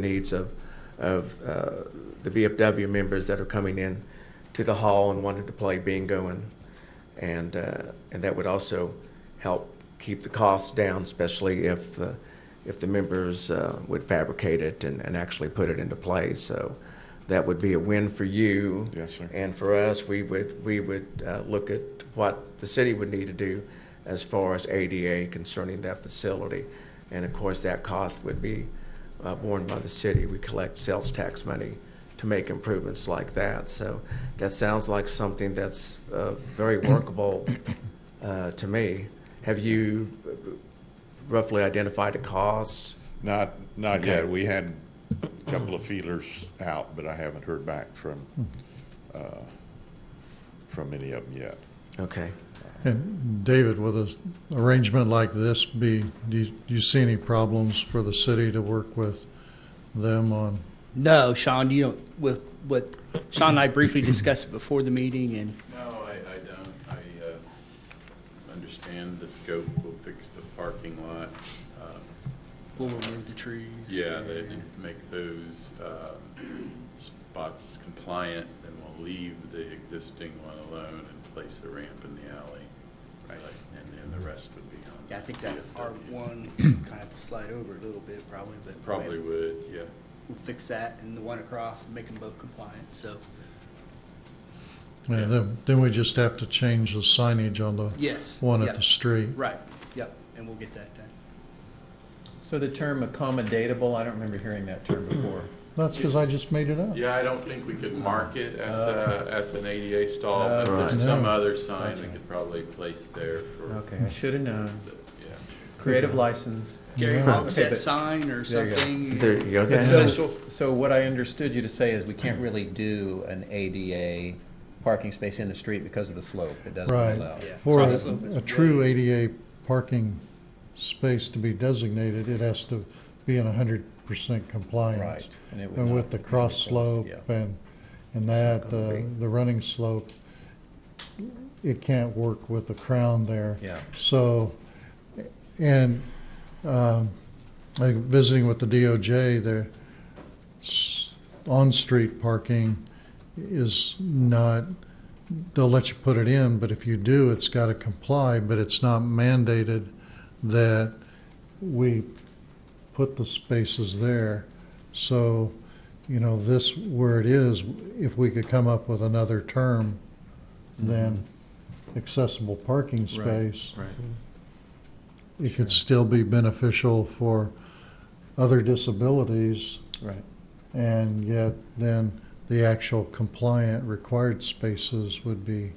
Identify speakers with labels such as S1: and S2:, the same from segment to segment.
S1: needs of, of uh, the VFW members that are coming in to the hall and wanting to play bingo and, and, uh, and that would also help keep the costs down, especially if, uh, if the members uh, would fabricate it and, and actually put it into play. So that would be a win for you.
S2: Yes, sir.
S1: And for us, we would, we would uh, look at what the city would need to do as far as ADA concerning that facility. And of course, that cost would be uh, borne by the city. We collect sales tax money to make improvements like that. So that sounds like something that's uh, very workable uh, to me. Have you roughly identified a cost?
S2: Not, not
S1: Okay.
S2: yet. We had a couple of feelers out, but I haven't heard back from,
S3: Hmm.
S2: uh, from any of them yet.
S1: Okay.
S4: And David, with an arrangement like this, be, do you, do you see any problems for the city to work with them on?
S5: No, Sean, you don't, with, with, Sean and I briefly discussed it before the meeting, and
S6: No, I, I don't. I uh, understand the scope. We'll fix the parking lot. Uh,
S5: we'll remove the trees.
S6: Yeah, they did make those uh, spots compliant, and we'll leave the existing one alone and place a ramp in the alley. Right. And then the rest would be on.
S5: Yeah, I think that R
S6: VFW.
S5: one kind of have to slide over a little bit probably, but.
S6: Probably would, yeah.
S5: We'll fix that and the one across and make them both compliant, so,
S4: Yeah, then, then we just have to change the signage on the
S5: yes.
S4: one at
S5: yep,
S4: the street.
S5: Right, yep, and we'll get that done.
S3: So the term accommodatable, I don't remember hearing that term before.
S4: That's because I just made it up.
S6: Yeah, I don't think we could mark it as,
S5: Uh,
S6: a- as an ADA stall, but
S3: Uh,
S4: Right.
S6: there's some
S4: no.
S6: other sign we could probably place there for.
S3: Okay, I should have known.
S6: the- Yeah.
S3: Creative license.
S5: Gary,
S4: Yeah.
S5: what was
S3: Okay,
S5: that
S3: but-
S5: sign or
S3: There you go.
S5: something?
S1: There you go.
S3: But
S1: Okay.
S3: so, so what I understood you to say is we can't really do an ADA parking space in the street because of the slope. It doesn't
S4: Right.
S3: allow.
S5: Yeah.
S4: For
S5: So- so
S4: a,
S5: it's
S4: a true ADA parking space to be designated, it has to be in hundred percent compliance.
S3: Right. And it would
S4: And
S3: not-
S4: with the cross slope
S3: Yeah.
S4: and, and that,
S1: gonna
S4: the,
S1: be.
S4: the running slope, it can't work with the crown there.
S3: Yeah.
S4: So, and, um, like visiting with the DOJ, the s- on-street parking is not, they'll let you put it in, but if you do, it's gotta comply, but it's not mandated that we put the spaces there. So, you know, this, where it is, if we could come up with another term
S1: Mm-hmm.
S4: than accessible parking space,
S3: Right.
S4: it could still be beneficial for other disabilities,
S3: Right.
S4: and yet then the actual compliant required spaces would be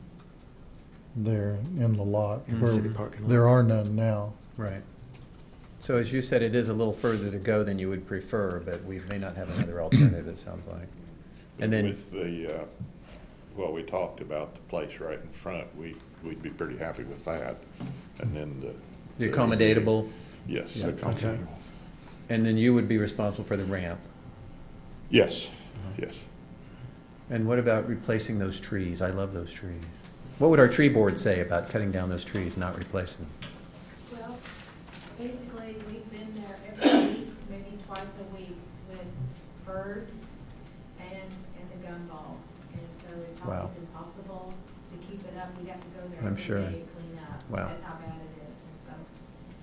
S4: there in the lot.
S1: In the
S4: where
S1: city parking lot.
S4: There are none now.
S3: Right. So as you said, it is a little further to go than you would prefer, but we may not have another alternative, it sounds like. And then,
S2: With the, uh, well, we talked about the place right in front. We, we'd be pretty happy with that. And then the.
S3: the accommodatable,
S2: Yes,
S3: Yeah, okay.
S2: accommodatable.
S3: and then you would be responsible for the ramp.
S2: Yes, yes.
S3: And what about replacing those trees? I love those trees. What would our tree board say about cutting down those trees, not replacing them?
S7: Well, basically, we've been there every week, maybe twice a week, with birds and, and the gun balls. And so it's
S3: Wow.
S7: almost impossible to keep it up. We'd have to go there
S3: I'm
S7: every
S3: sure.
S7: day and clean up.
S3: Wow.
S7: That's how bad it is. And so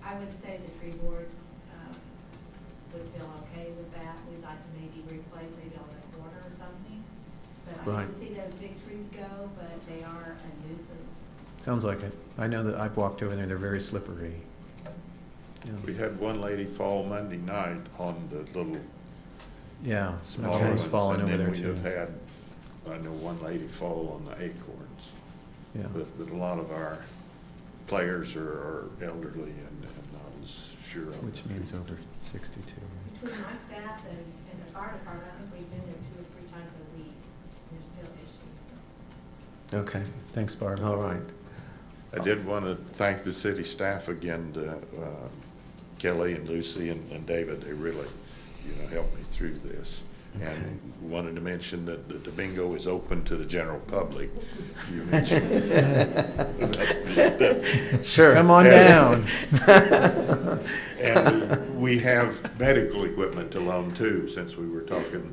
S7: I would say the tree board, um, would feel okay with that. We'd like to maybe replace maybe on the corner or something. But I
S1: Right.
S7: hate to see those big trees go, but they are a nuisance.
S3: Sounds like it. I know that I've walked over there, they're very slippery.
S2: We had one lady fall Monday night on the little
S3: Yeah,
S2: smaller
S3: smaller
S2: ones.
S3: one's falling over there
S2: And then
S3: too.
S2: we have had, I know one lady fall on the acorns.
S3: Yeah,
S2: But, but a lot of our players are, are elderly and, and not as sure of.
S3: which means over sixty-two. right?
S7: Between my staff and, and the fire department, I think we've been there two or three times a week, and there's still issues, so.
S1: Okay.
S3: Thanks, Barb.
S1: All right.
S2: I did want to thank the city staff again, uh, to, um, Kelly and Lucy and, and David, they really, you know, helped me through this. and wanted to mention that that the bingo is open to the general public. You mentioned
S1: Sure.
S3: Come on down.
S2: And we have medical equipment to loan too, since we were talking